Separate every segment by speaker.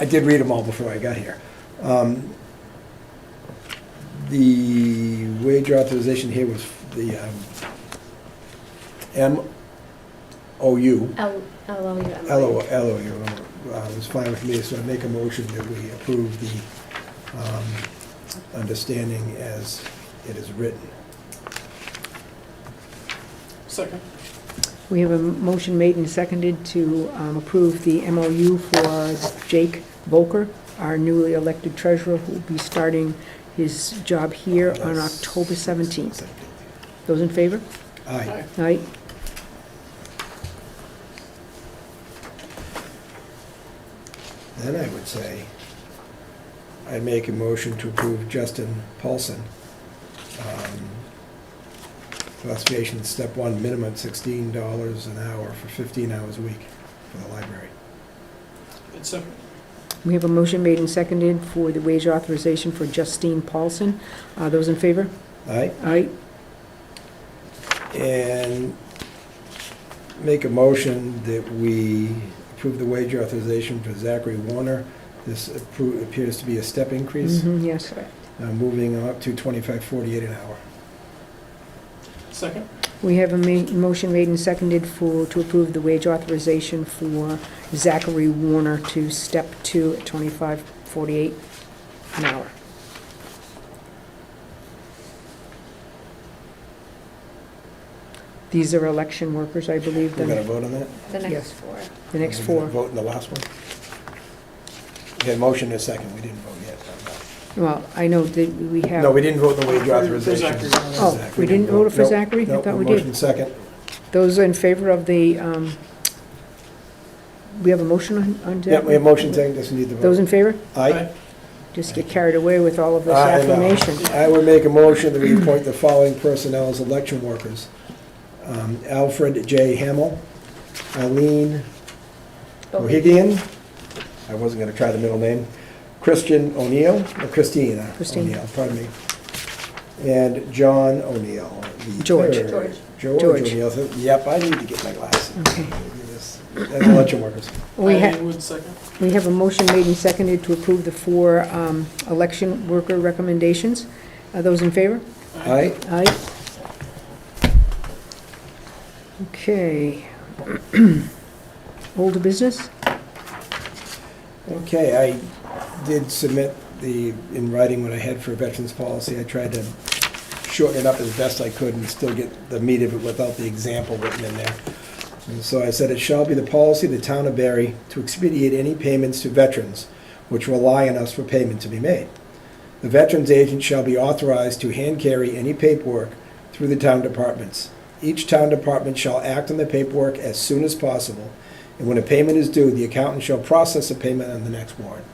Speaker 1: I did read them all before I got here. Um, The wage authorization here was the um, MOU,
Speaker 2: L, L O U M.
Speaker 1: LO LOU, uh, was fine with me, so I make a motion that we approve the um, understanding as it is written.
Speaker 3: Second.
Speaker 4: We have a motion made and seconded to um, approve the MOU for Jake Volker, our newly elected treasurer, who will be starting his job here on October 17th. Those in favor?
Speaker 1: Aye.
Speaker 4: Aye.
Speaker 1: Then I would say, I make a motion to approve Justin Paulson. um, Classification step one, minimum sixteen dollars an hour for fifteen hours a week for the library.
Speaker 3: And second.
Speaker 4: We have a motion made and seconded for the wage authorization for Justine Paulson. Uh, Those in favor?
Speaker 1: All right,
Speaker 4: Aye.
Speaker 1: and make a motion that we approve the wage authorization for Zachary Warner. This appro- appears to be a step increase,
Speaker 4: Mhm, Yes.
Speaker 1: uh, moving up to twenty-five forty-eight an hour.
Speaker 3: Second.
Speaker 4: We have a ma- motion made and seconded for, to approve the wage authorization for Zachary Warner to step two at twenty-five forty-eight an hour. These are election workers, I believe,
Speaker 1: We're gonna
Speaker 4: the,
Speaker 1: vote on that?
Speaker 2: The
Speaker 4: Yes.
Speaker 2: next four.
Speaker 4: the next
Speaker 1: We didn't
Speaker 4: four.
Speaker 1: Vote in the last one? We had a motion in a second, we didn't vote yet.
Speaker 4: Well, I know that we have.
Speaker 1: No, we didn't vote in the wage
Speaker 3: For- for
Speaker 1: authorization.
Speaker 3: Zachary.
Speaker 4: Oh,
Speaker 1: Zach,
Speaker 4: we didn't vote for
Speaker 1: Nope,
Speaker 4: Zachary? I
Speaker 1: nope,
Speaker 4: thought we
Speaker 1: motion
Speaker 4: did.
Speaker 1: second.
Speaker 4: Those in favor of the, um, we have a motion on, on Zachary?
Speaker 1: Yeah, we have motion second, just need the
Speaker 4: Those
Speaker 1: vote.
Speaker 4: in favor?
Speaker 1: Aye.
Speaker 4: just get carried away with all of this
Speaker 1: Aye, I know.
Speaker 4: affirmation.
Speaker 1: I would make a motion that we appoint the following personnel as election workers. Um, Alfred J. Hamel, Eileen Mohegan, I wasn't gonna try the middle name, Christian O'Neill, or Christina
Speaker 4: Christine.
Speaker 1: O'Neill, pardon me, and John O'Neill. the
Speaker 4: George.
Speaker 1: third.
Speaker 2: George.
Speaker 1: George
Speaker 4: George.
Speaker 1: O'Neill, so- yep, I need to get my glasses.
Speaker 4: Okay.
Speaker 1: That's election workers.
Speaker 4: We
Speaker 3: Eileen
Speaker 4: have,
Speaker 3: Wood, second.
Speaker 4: we have a motion made and seconded to approve the four um, election worker recommendations. Are those in favor?
Speaker 1: All right,
Speaker 4: Aye. Okay. Old business?
Speaker 1: okay, I did submit the, in writing what I had for veterans policy, I tried to shorten it up as best I could and still get the meat of it without the example written in there. And so I said, it shall be the policy of the town of Barry to expedite any payments to veterans which rely on us for payment to be made. The veterans agent shall be authorized to hand carry any paperwork through the town departments. Each town department shall act on the paperwork as soon as possible, and when a payment is due, the accountant shall process the payment on the next warrant.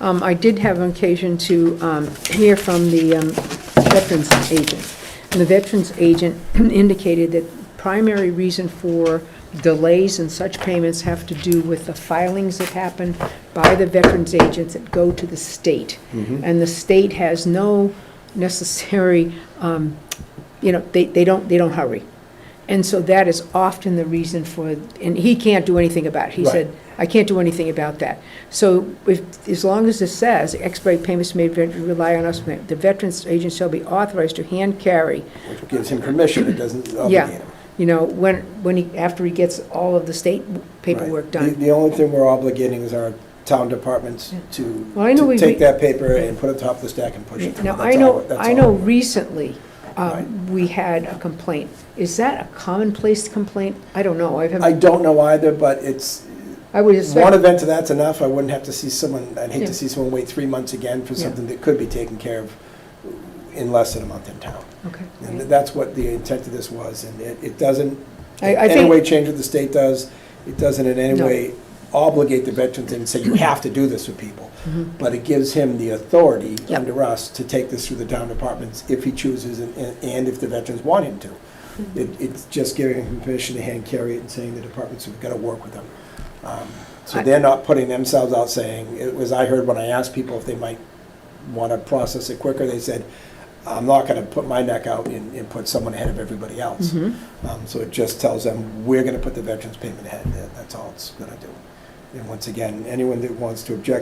Speaker 4: Um, I did have an occasion to um, hear from the um, veterans agent. And the veterans agent indicated that primary reason for delays in such payments have to do with the filings that happen by the veterans agents that go to the state. And the state has no necessary, um, you know, they, they don't, they don't hurry. And so that is often the reason for, and he can't do anything about it. He
Speaker 1: Right.
Speaker 4: said, I can't do anything about that. So if, as long as it says, expedite payments may rely on us, the veterans agent shall be authorized to hand carry,
Speaker 1: Which gives him permission, it doesn't obligate him.
Speaker 4: you know, when, when he, after he gets all of the state paperwork
Speaker 1: Right. The-
Speaker 4: done.
Speaker 1: The only thing we're obligating is our town departments to
Speaker 4: Well, I know
Speaker 1: to
Speaker 4: we-
Speaker 1: take that paper and put it top of the stack and push it through.
Speaker 4: Now,
Speaker 1: That's
Speaker 4: I
Speaker 1: all-
Speaker 4: know,
Speaker 1: that's
Speaker 4: I
Speaker 1: all.
Speaker 4: know recently, um,
Speaker 1: Right.
Speaker 4: we had a complaint. Is that a commonplace complaint? I don't know. I
Speaker 1: I
Speaker 4: haven't,
Speaker 1: don't know either, but it's,
Speaker 4: I would
Speaker 1: one
Speaker 4: expect,
Speaker 1: event of that's enough. I wouldn't have to see someone, I'd hate
Speaker 4: Yeah.
Speaker 1: to see someone wait three months again for
Speaker 4: Yeah.
Speaker 1: something that could be taken care of in less than a month in town.
Speaker 4: okay.
Speaker 1: And that's what the intent of this was, and it, it doesn't,
Speaker 4: I- I
Speaker 1: in any
Speaker 4: think-
Speaker 1: way change what the state does. It doesn't in any
Speaker 4: No.
Speaker 1: way obligate the veterans and say, you have to do this with people. But it gives him the authority
Speaker 4: Mm-hmm. Yep.
Speaker 1: under us to take this through the town departments if he chooses and, and- and if the veterans want him to.
Speaker 4: Mm-hmm.
Speaker 1: It, it's just giving him permission to hand carry it and saying the departments have got to work with him. Um, So
Speaker 4: I-
Speaker 1: they're not putting themselves out saying, it was, I heard when I asked people if they might want to process it quicker, they said, I'm not going to put my neck out and, and put someone ahead of everybody else.
Speaker 4: Mhm.
Speaker 1: Um, So it just tells them, we're going to put the veterans payment ahead, That- that's all it's going to do. And once again, anyone that wants to object